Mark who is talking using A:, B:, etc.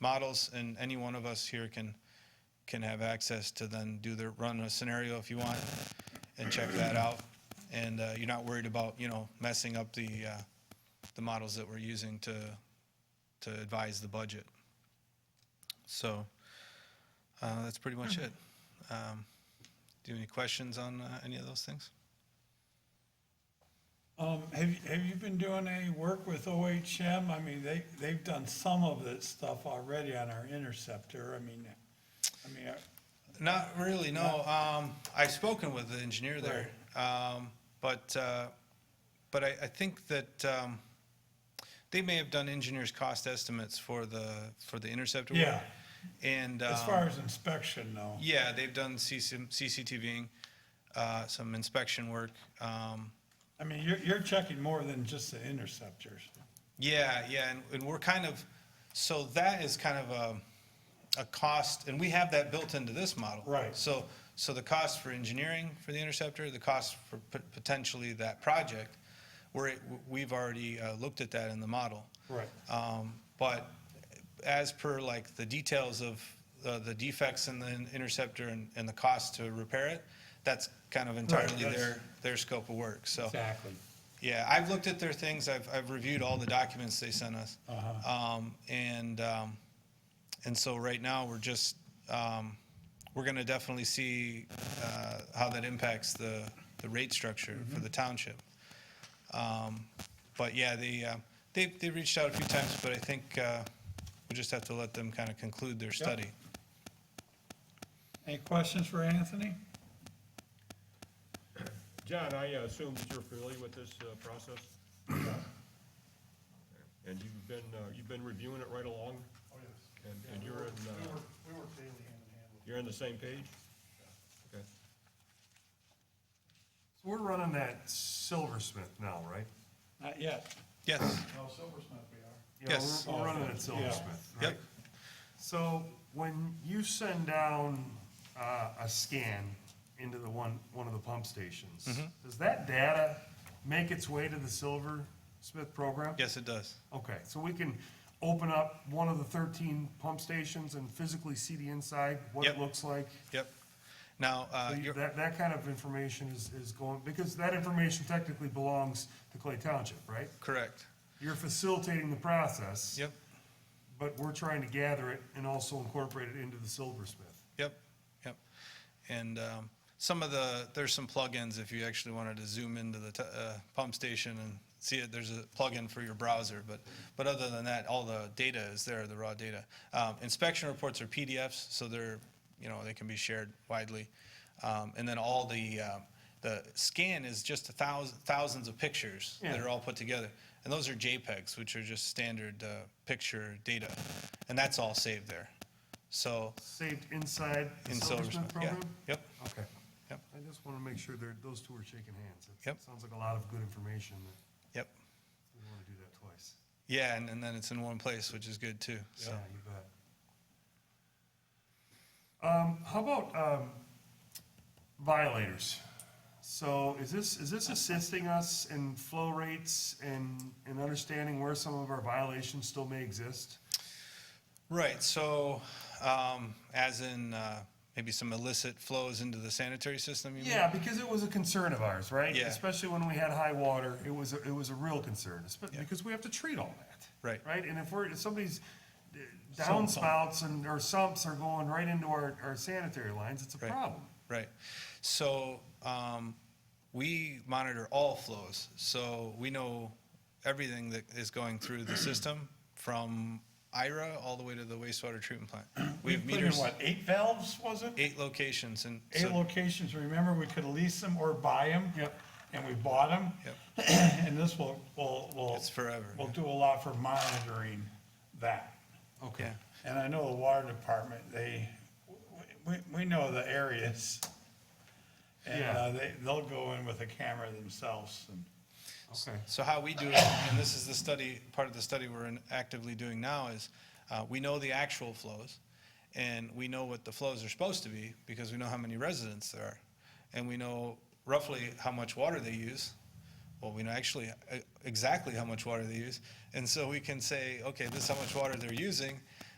A: models, and any one of us here can, can have access to then do the, run a scenario if you want, and check that out. And uh, you're not worried about, you know, messing up the, uh, the models that we're using to, to advise the budget. So, uh, that's pretty much it. Um, Do you have any questions on uh, any of those things?
B: Um, have, you- have you been doing any work with OHM? I mean, they, they've done some of this stuff already on our interceptor. I mean, I mean, uh,
A: Not really, no. Um, I've spoken with the engineer there. Um, but, uh, but I, I think that, um, they may have done engineers' cost estimates for the, for the interceptor. work.
B: Yeah.
A: And, um.
B: as far as inspection though.
A: Yeah, they've done CC CCTVing, uh, some inspection work. Um,
B: I mean, you're, you're checking more than just the interceptors.
A: Yeah, yeah, and, and we're kind of, so that is kind of a, a cost, and we have that built into this model.
B: Right.
A: So, so the cost for engineering for the interceptor, the cost for pot- potentially that project, we're, we've already uh, looked at that in the model.
B: Right.
A: Um, But as per like the details of uh, the defects in the interceptor and, and the cost to repair it, that's kind of entirely
B: that's-
A: their, their scope of work, so.
B: Exactly.
A: Yeah, I've looked at their things, I've, I've reviewed all the documents they sent us.
C: Uh-huh.
A: Um, and, um, and so right now, we're just, um, we're gonna definitely see, uh, how that impacts the, the rate structure for
C: Mm-hmm.
A: the township. Um, But yeah, they, uh, they, they reached out a few times, but I think, uh, we just have to let them kind of conclude their study.
B: Any questions for Anthony?
D: John, I uh, assume that you're familiar with this uh, process? And you've been, uh, you've been reviewing it right along?
E: Oh, yes.
D: And
E: Yeah,
D: and
E: we
D: you're
E: work-
D: in,
E: We
D: uh,
E: work, we work daily hand in hand with.
D: you're on the same page? Okay.
C: So we're running that silversmith now, right?
B: Not yet.
A: Yes,
E: No, Silversmith we are.
C: You know, we're-
A: Yes.
C: We're running it silversmith,
A: Yep.
C: right? So when you send down uh, a scan into the one, one of the pump stations,
A: Mm-hmm.
C: does that data make its way to the silversmith program?
A: yes, it does.
C: Okay, so we can open up one of the 13 pump stations and physically see the inside, what
A: Yep.
C: it looks like?
A: Yep. Now, uh,
C: So you-
A: you're,
C: That, that kind of information is, is going, because that information technically belongs to Clay Township, right?
A: correct.
C: You're facilitating the process.
A: Yep,
C: But we're trying to gather it and also incorporate it into the silversmith.
A: Yep, yep. And um, some of the, there's some plugins if you actually wanted to zoom into the t- uh, pump station and see it, there's a plugin for your browser. But, but other than that, all the data is there, the raw data. Um, Inspection reports are PDFs, so they're, you know, they can be shared widely. Um, And then all the, um, the scan is just a thousand, thousands of pictures that
C: Yeah.
A: are all put together. And those are JPEGs, which are just standard uh, picture data. And that's all saved there. So
C: Saved inside the
A: in Silversmith,
C: silversmith
A: yeah.
C: program?
A: Yep,
C: Okay.
A: Yep.
C: I just want to make sure there, those two are shaking hands. It
A: Yep.
C: Sounds like a lot of good information that
A: yep.
C: we don't want to do that twice.
A: Yeah, and, and then it's in one place, which is good too, so.
C: Yeah, you bet. Um, how about, um, violators? So is this, is this assisting us in flow rates and, and understanding where some of our violations still may exist?
A: Right, so, um, as in, uh, maybe some illicit flows into the sanitary system, you mean?
C: Yeah, because it was a concern of ours, right?
A: Yeah.
C: Especially when we had high water, it was, a- it was a real concern, espe- because we have to treat all that.
A: Right.
C: Right, and if we're, if somebody's uh, downspouts and, or sumps are going right into our, our sanitary lines, it's a
A: Right.
C: problem.
A: Right. So um, we monitor all flows. So we know everything that is going through the system from IRA all the way to the wastewater treatment plant. We have
B: Put in
A: meters,
B: what, eight valves, was it?
A: eight locations and.
B: Eight
A: so-
B: locations, remember, we could lease them or buy them?
C: Yep.
B: And we bought them?
A: Yep.
B: And this will, will, will.
A: It's forever,
B: Will
A: yeah.
B: do a lot for monitoring that.
A: Okay.
B: And I know the water department, they, we, we know the areas. And,
C: Yeah.
B: uh, they, they'll go in with a camera themselves and,
C: Okay.
A: So how we do it, and this is the study, part of the study we're in- actively doing now is, uh, we know the actual flows, and we know what the flows are supposed to be, because we know how many residents there are. And we know roughly how much water they use. Well, we know actually uh, exactly how much water they use. And so we can say, okay, this is how much water they're using,